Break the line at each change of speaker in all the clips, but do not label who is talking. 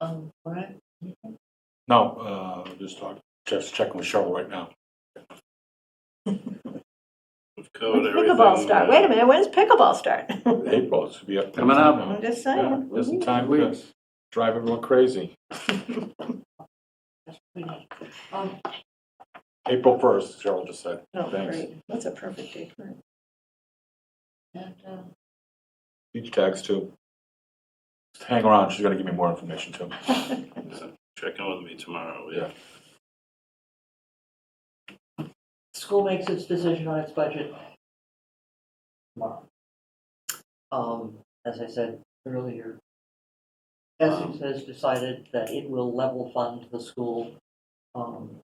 Um, all right,
No, uh, just talk, just checking with Cheryl right now.
We've
Oh,
covered
When's
everything.
pickleball start? Wait a minute, when does pickleball start?
April, it's gonna be up.
Coming up.
I'm just
Yeah,
saying.
Isn't time to drive everyone crazy.
Oh,
April first, Cheryl just said.
no,
Thanks.
great. That's a perfect day for it. And, uh,
Beach tags too. Just hang around, she's gonna give me more information too.
Check in with me tomorrow,
Yeah.
yeah.
School makes its decision on its budget tomorrow. Um, as I said earlier,
Um,
Essex has decided that it will level fund the school, um,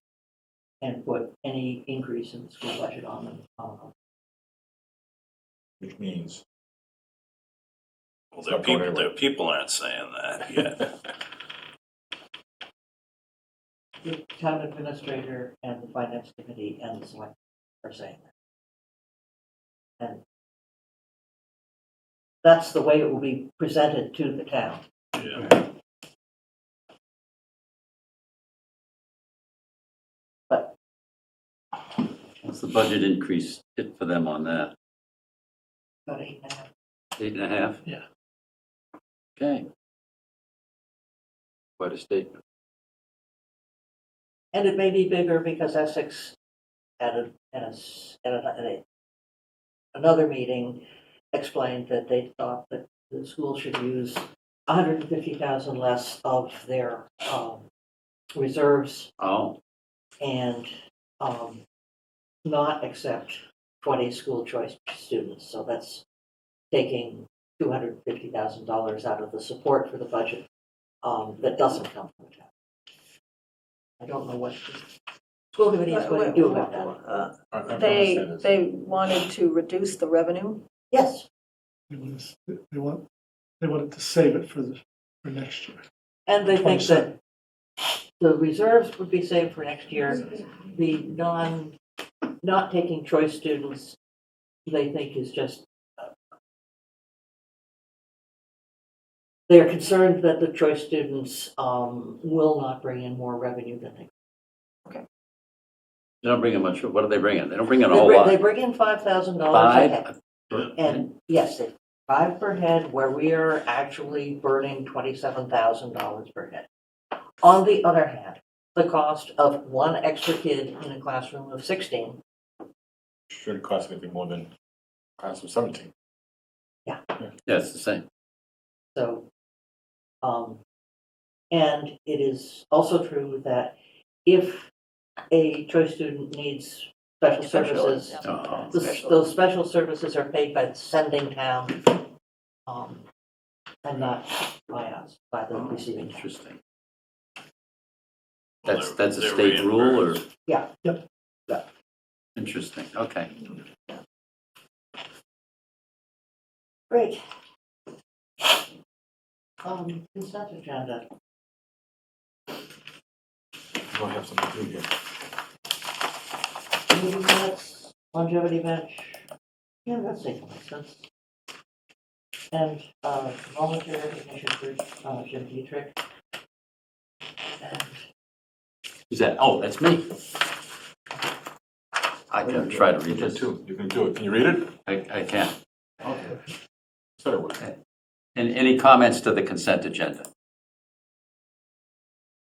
and put any increase in the school budget on them. Um,
Which means,
Well,
not
their
going
people,
anywhere.
their people aren't saying that yet.
The town administrator and the finance committee and the select are saying that. And that's the way it will be presented to the town.
Yeah.
What's the budget increase hit for them on that?
About eight and a half
Eight and a half?
Yeah.
Okay. Quite a statement.
And it may be bigger because Essex at a, at a, s- at a- at a- another meeting explained that they thought that the school should use hundred and fifty thousand less of their, um, reserves
Oh,
and, um, not accept twenty school choice students. So that's taking two hundred and fifty thousand dollars out of the support for the budget, um, that doesn't come from the town. I don't know what the school committee is going to do about that.
Uh,
I- I'm gonna say
They,
this.
they wanted to reduce the revenue.
Yes,
They want, us- they want, they wanted to save it for the, for next year.
and they think that
27.
the reserves would be saved for next year. The non, not taking choice students, they think is just, uh, they're concerned that the choice students um, will not bring in more revenue than they.
they don't bring in much, what are they bringing? They don't bring in a
They
whole
bring- They
lot.
bring in five thousand dollars a head.
Five?
And yes, they- five per head, where we are actually burning twenty-seven thousand dollars per head. On the other hand, the cost of one extra kid in a classroom of sixteen,
Shouldn't cost anything more than class of seventeen.
Yeah, it's the same.
so. Um, and it is also true that if a choice student needs special Uh-huh. services,
Oh,
the- those special services are paid by the sending town. um, And not by us, by the receiving town.
interesting.
Well,
That's,
they're-
that's a
they're
state rule or?
reimbursed.
Yeah.
Yep.
Yeah. Interesting, okay.
Great. Um, consent agenda.
You don't have something to do here.
Meeting minutes, longevity bench. Yeah, that's taking sense. And, uh, volunteer recognition for, uh, Jim Dietrich. And
Is that, oh, that's me. I can try to read
You can
this.
do it. You can do it. Can you read it?
I, I can.
Okay. Said it would.
And any comments to the consent agenda?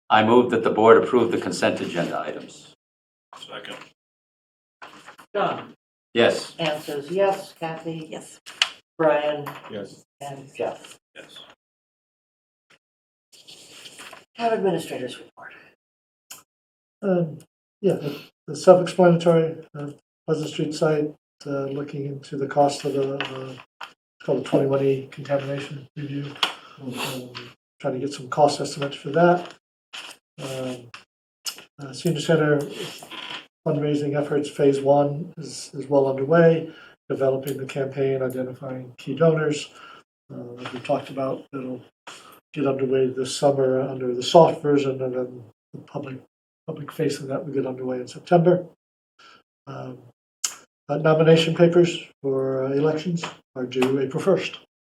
I move that the board approve the consent agenda items.
Second.
John,
Yes,
Anne says yes, Kathy,
Yes.
Brian,
Yes.
and Jeff.
Yes.
Town administrators report.
Um, yeah, the- the self-explanatory, uh, Pleasant Street site, uh, looking into the cost of the, uh, it's called the twenty-one E contamination review. Um, Trying to get some cost estimates for that. Um, uh, Senior Center fundraising efforts, phase one is, is well underway, developing the campaign, identifying key donors. Uh, as we talked about, it'll get underway this summer under the soft version and then the public public face of that will get underway in September. Um, uh, Nomination papers for uh, elections are due April 1st.